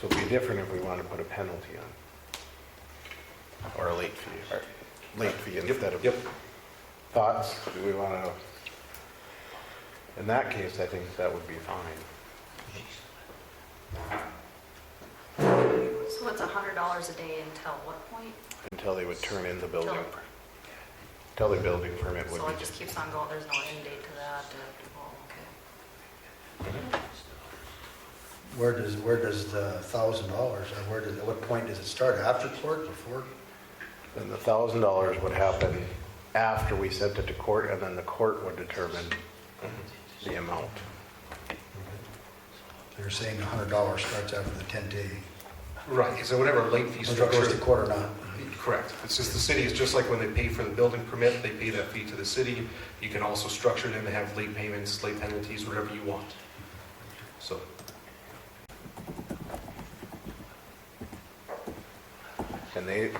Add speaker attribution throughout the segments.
Speaker 1: So it'd be different if we wanted to put a penalty on,
Speaker 2: or a late
Speaker 1: or
Speaker 2: fee.
Speaker 1: late fee
Speaker 2: Yep,
Speaker 1: instead of.
Speaker 2: Yep,
Speaker 1: Thoughts, do we want to? In that case, I think that would be fine.
Speaker 3: So it's a hundred dollars a day until what point?
Speaker 1: Until they would turn in the
Speaker 3: Till-
Speaker 1: building, until the building permit would
Speaker 3: So it
Speaker 1: be.
Speaker 3: just keeps on going, there's no end date to that, uh, oh, okay.
Speaker 4: Where does, where does the thousand dollars, and where does, at what point does it start? After court, before?
Speaker 1: And the thousand dollars would happen after we sent it to court, and then the court would determine the amount.
Speaker 4: They're saying a hundred dollars starts after the ten day,
Speaker 2: right, so whatever late fee
Speaker 4: whether it goes to
Speaker 2: structure.
Speaker 4: court or not.
Speaker 2: Correct, it's just the city, it's just like when they pay for the building permit, they pay that fee to the city. You can also structure them to have late payments, late penalties, whatever you want. So,
Speaker 1: And they,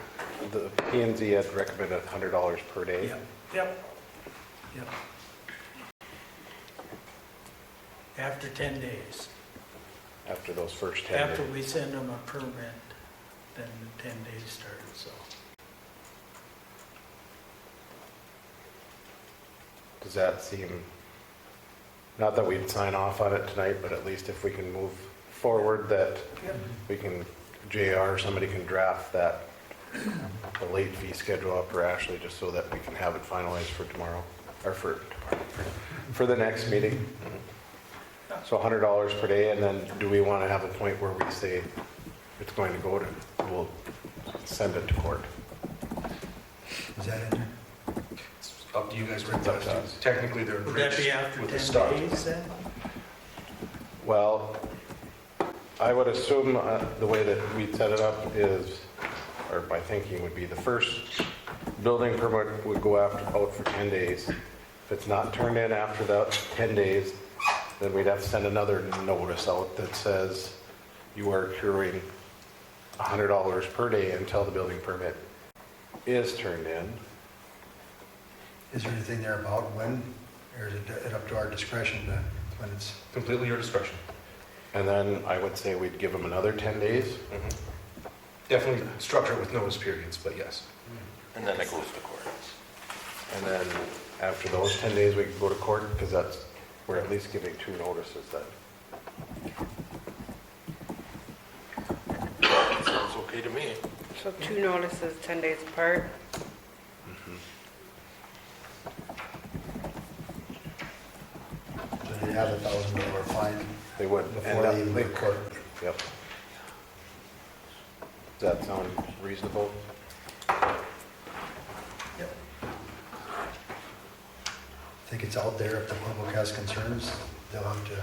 Speaker 1: the P and Z had recommended hundred dollars per day.
Speaker 5: Yep, yep, yep. After 10 days,
Speaker 1: after those first 10
Speaker 5: after
Speaker 1: days.
Speaker 5: we send them a permit, then the 10 days start, so.
Speaker 1: Does that seem, not that we'd sign off on it tonight, but at least if we can move forward, that we can, JR, somebody can draft that, the late fee schedule up for Ashley, just so that we can have it finalized for tomorrow, or for, tomorrow, for the next meeting. So $100 per day, and then do we want to have a point where we say it's going to go to, we'll send it to court?
Speaker 4: Is that in there?
Speaker 2: it's up to you guys.
Speaker 1: It's up to us.
Speaker 2: Technically, they're
Speaker 5: Would that
Speaker 2: enriched
Speaker 5: be after
Speaker 2: with the
Speaker 5: 10
Speaker 2: start.
Speaker 5: days then?
Speaker 1: Well, I would assume uh, the way that we set it up is, or my thinking would be, the first building permit would go after, out for 10 days. If it's not turned in after that 10 days, then we'd have to send another notice out that says you are accruing $100 per day until the building permit is turned in.
Speaker 4: Is there anything there about when, or is it up to our discretion to, when it's,
Speaker 2: Completely your discretion.
Speaker 1: And then I would say we'd give them another 10 days.
Speaker 2: Definitely structure it with notice periods, but yes.
Speaker 6: And then it goes to court.
Speaker 1: And then after those 10 days, we can go to court because that's, we're at least giving two notices then.
Speaker 6: Sounds okay to me.
Speaker 7: So two notices, 10 days apart.
Speaker 4: do they have a thousand dollar fine
Speaker 1: They would end
Speaker 4: before
Speaker 1: up,
Speaker 4: they even go to court?
Speaker 1: yep. Does that sound reasonable?
Speaker 4: I think it's out there, if the public has concerns, they'll have to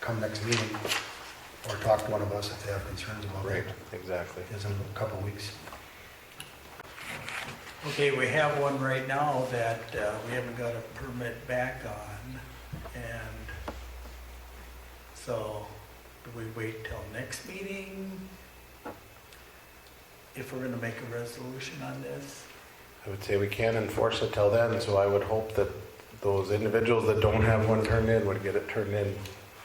Speaker 4: come next meeting, or talk to one of us if they have concerns about it.
Speaker 1: Exactly.
Speaker 4: Is in a couple weeks.
Speaker 5: Okay, we have one right now that uh, we haven't got a permit back on, and so do we wait till next meeting? If we're gonna make a resolution on this?
Speaker 1: I would say we can enforce it till then, so I would hope that those individuals that don't have one turned in would get it turned in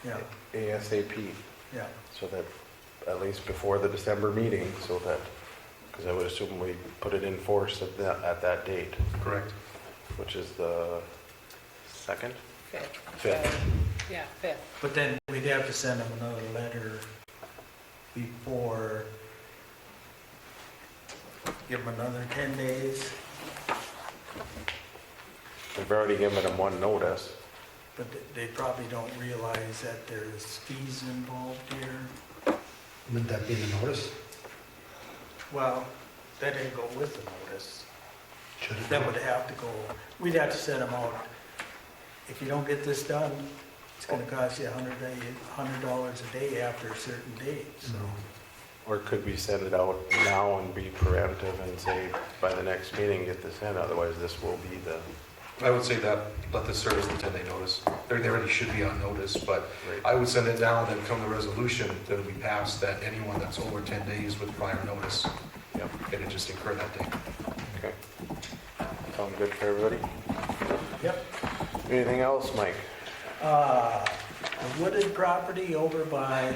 Speaker 5: Yeah,
Speaker 1: ASAP.
Speaker 5: yeah.
Speaker 1: So that, at least before the December meeting, so that, because I would assume we put it in force at that, at that date.
Speaker 2: Correct.
Speaker 1: which is the second?
Speaker 7: Fifth.
Speaker 1: Fifth.
Speaker 7: Yeah, fifth.
Speaker 5: But then we'd have to send them another letter before, give them another 10 days,
Speaker 1: We've already given them one notice.
Speaker 5: but they probably don't realize that there's fees involved here.
Speaker 4: Wouldn't that be in the notice?
Speaker 5: Well, that didn't go with the notice.
Speaker 4: Should it?
Speaker 5: That would have to go, we'd have to send them out. If you don't get this done, it's gonna cost you a hundred day, hundred dollars a day after a certain date, so.
Speaker 1: Or could we send it out now and be preemptive and say, by the next meeting, get this in, otherwise this will be the
Speaker 2: I would say that, let this serve as the 10-day notice. They they already should be on notice, but
Speaker 1: rate.
Speaker 2: I would send it down and come the resolution that we passed that anyone that's over 10 days with prior notice,
Speaker 1: Yep,
Speaker 2: it would just incur that day.
Speaker 1: okay. Sound good for everybody?
Speaker 5: Yep.
Speaker 1: Anything else, Mike?
Speaker 5: Uh, the wooded property over by